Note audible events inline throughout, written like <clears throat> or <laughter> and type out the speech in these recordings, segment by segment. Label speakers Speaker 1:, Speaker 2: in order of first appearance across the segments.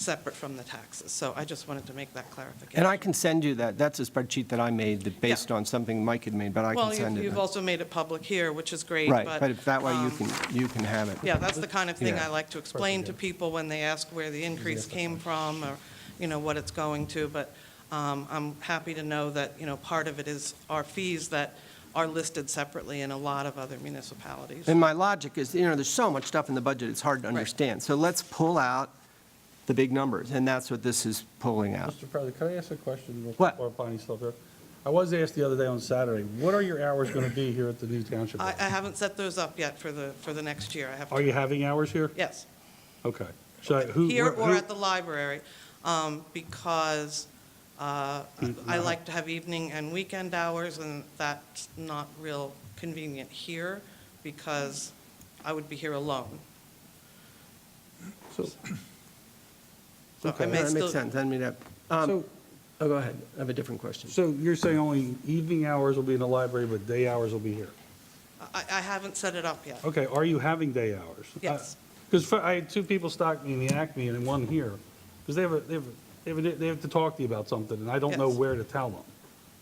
Speaker 1: separate from the taxes. So I just wanted to make that clarification.
Speaker 2: And I can send you that. That's a spreadsheet that I made that based
Speaker 1: Yeah.
Speaker 2: on something Mike had made, but I can
Speaker 1: Well, you've-
Speaker 2: send it.
Speaker 1: you've also made it public here, which is great,
Speaker 2: Right,
Speaker 1: but...
Speaker 2: but if that way you
Speaker 1: um,
Speaker 2: can, you can have it.
Speaker 1: Yeah, that's the kind of thing
Speaker 2: Yeah.
Speaker 1: I like to explain to people when they ask where the increase came from, or, you know, what it's going to, but um, I'm happy to know that, you know, part of it is our fees that are listed separately in a lot of other municipalities.
Speaker 2: And my logic is, you know, there's so much stuff in the budget, it's hard to understand. So let's pull out the big numbers, and that's what this is pulling out.
Speaker 3: Mr. President, can I ask a question? real
Speaker 2: What?
Speaker 3: quick While Bonnie's still here. I was asked the other day on Saturday, what are your hours going to be here at the new township?
Speaker 1: I I
Speaker 3: office?
Speaker 1: haven't set those up yet for the, for the next year. I have to...
Speaker 3: Are you having hours here?
Speaker 1: Yes.
Speaker 3: Okay. So who?
Speaker 1: Here
Speaker 3: where-
Speaker 1: or
Speaker 3: who-
Speaker 1: at the library, um, because uh,
Speaker 3: Mm-hmm.
Speaker 1: I like to have evening and weekend hours, and that's not real convenient here, because I would be here alone.
Speaker 4: So,
Speaker 1: So I
Speaker 2: No,
Speaker 1: may
Speaker 2: That
Speaker 1: still-
Speaker 2: makes sense. I mean, uh, um,
Speaker 4: so,
Speaker 2: oh, go ahead. I have a different question.
Speaker 3: so you're saying only evening hours will be in the library, but day hours will be here?
Speaker 1: I I haven't set it up yet.
Speaker 3: Okay, are you having day hours?
Speaker 1: Yes.
Speaker 3: Because I had two people stock me in the Acme and then one here, because they have, a- they have, a- they have, a- they have to talk to you about something, and I don't know
Speaker 1: Yes.
Speaker 3: where to tell them.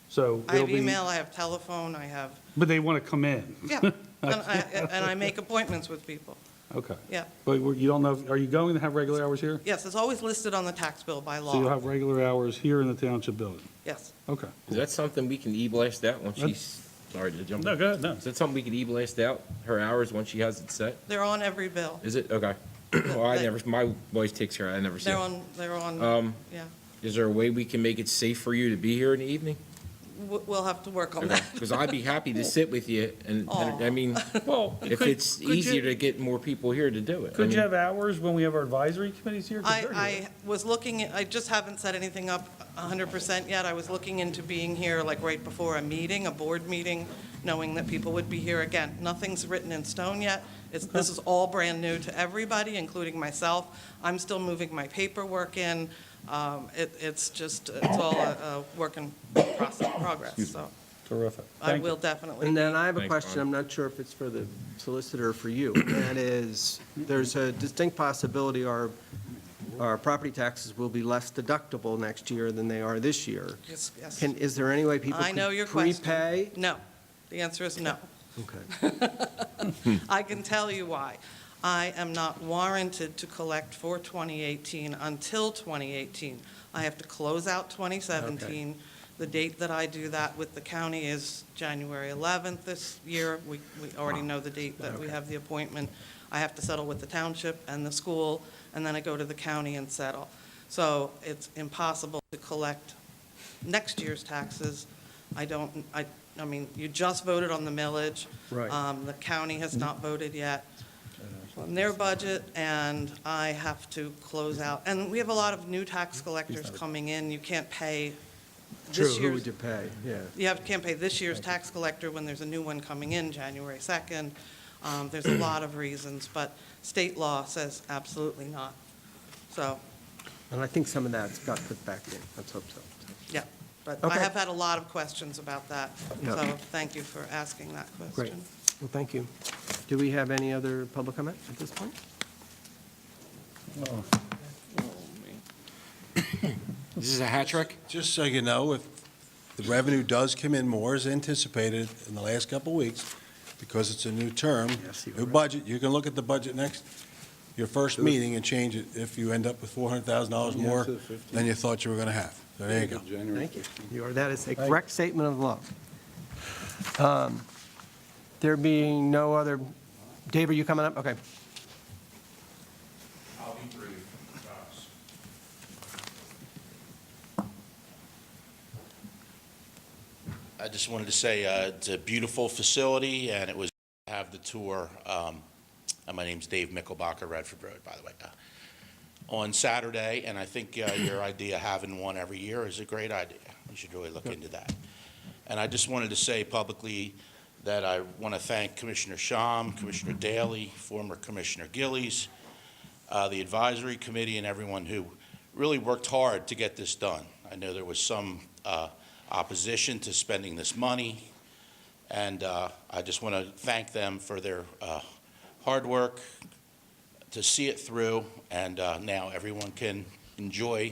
Speaker 3: So
Speaker 1: I
Speaker 3: it'll
Speaker 1: have
Speaker 3: be.
Speaker 1: email, I have telephone, I have,
Speaker 3: But they want to come in. <laughs>
Speaker 1: yeah, and I and I make appointments with people,
Speaker 3: Okay.
Speaker 1: yeah.
Speaker 3: But we're- you don't know, if- are you going to have regular hours here?
Speaker 1: Yes, it's always listed on the tax bill by
Speaker 3: So you'll
Speaker 1: law,
Speaker 3: have regular hours here in the township building?
Speaker 1: yes.
Speaker 3: Okay.
Speaker 4: is that something we can e-blast out once
Speaker 3: That-
Speaker 4: she's, sorry to jump.
Speaker 3: No,
Speaker 4: in.
Speaker 3: go ahead, no.
Speaker 4: Is that something we can e-blast out, her hours, once she has it set?
Speaker 1: They're on every bill,
Speaker 4: Is
Speaker 1: <clears throat>
Speaker 4: it? Okay. Well, I never, my voice takes care, of it. I never see
Speaker 1: they're
Speaker 4: it.
Speaker 1: on, they're on,
Speaker 4: Um,
Speaker 1: yeah.
Speaker 4: Is there a way we can make it safe for you to be here in the evening?
Speaker 1: <laughs> W- We'll have to work on that.
Speaker 4: Because I'd be happy
Speaker 1: <laughs>
Speaker 4: to sit with you, and, and- I
Speaker 1: Aw. <laughs>
Speaker 4: mean,
Speaker 3: Well,
Speaker 4: if it's easier to get more people here to do it. I
Speaker 3: Could you
Speaker 4: mean-
Speaker 3: have hours when we have our advisory committees here? 'Cause they're here.
Speaker 1: I, I was looking, I just haven't set anything up 100% yet. I was looking into being here like right before a meeting, a board meeting, knowing that people would be here. Again, nothing's written in stone yet. It's, this is all brand new to everybody, including myself. I'm still moving my paperwork in. Um, It, it's just, it's all a, a work in process, progress, so
Speaker 3: Terrific.
Speaker 1: I
Speaker 3: Thank you.
Speaker 1: will definitely.
Speaker 2: And then I have a
Speaker 4: Thanks,
Speaker 2: question,
Speaker 4: Bob.
Speaker 2: I'm not sure if it's for the solicitor or for you. and That is, there's a distinct possibility our, our property taxes will be less deductible next year than they are this year.
Speaker 1: Yes, yes.
Speaker 2: Can, is there any way people
Speaker 1: I
Speaker 2: can
Speaker 1: know your question.
Speaker 2: prepay?
Speaker 1: No. The answer is no.
Speaker 2: Okay.
Speaker 1: I can tell you why. I am not warranted to collect for 2018 until 2018. I have to close out 2017. The date that I do that with the county is January 11th this year. We, we already know the date that we have the appointment. I have to settle with the township and the school, and then I go to the county and settle. So it's impossible to collect next year's taxes. I don't, I, I mean, you just voted on the millage.
Speaker 3: Right.
Speaker 1: Um, The county has not voted yet on their budget, and I have to close out. And we have a lot of new tax collectors coming in. You can't pay
Speaker 2: True,
Speaker 1: this
Speaker 2: who
Speaker 1: year's,
Speaker 2: would you pay? Yeah.
Speaker 1: you have, can't pay this year's tax collector when there's a new one coming in January 2nd. Um, There's a lot of reasons, but state law says absolutely not. So,
Speaker 2: And I think some of that's got put back in, let's hope so.
Speaker 1: yeah, but I
Speaker 2: Okay.
Speaker 1: have had a lot of questions about that,
Speaker 2: Yeah.
Speaker 1: so thank you for asking that
Speaker 2: Great.
Speaker 1: question.
Speaker 2: Well, thank you. Do we have any other public comment at this point?
Speaker 4: This is a hat trick?
Speaker 5: Just so you know, if the revenue does come in more as anticipated in the last couple of weeks, because it's a new term,
Speaker 2: Yes, you are
Speaker 5: new
Speaker 2: right.
Speaker 5: budget, you can look at the budget next, your first meeting and change it if you end up with $400,000 more
Speaker 6: to the 15.
Speaker 5: than you thought you were going to have. So There you go.
Speaker 6: January
Speaker 2: Thank you. You are, that is a correct statement of the law. Um, There being no other, Dave, are you coming up? Okay.
Speaker 7: I'll be brief, Josh. I just wanted to say, uh, it's a beautiful facility, and it was, have the tour, um, and my name's Dave Mickelbacher, Redford Road, by the way, uh, on Saturday, and I think uh, <clears throat> your idea of having one every year is a great idea. We should really look into that. And I just wanted to say publicly that I want to thank Commissioner Shum, Commissioner Daley, former Commissioner Gillies, uh, the advisory committee and everyone who really worked hard to get this done. I know there was some uh, opposition to spending this money, and uh, I just want to thank them for their uh, hard work to see it through, and uh, now everyone can enjoy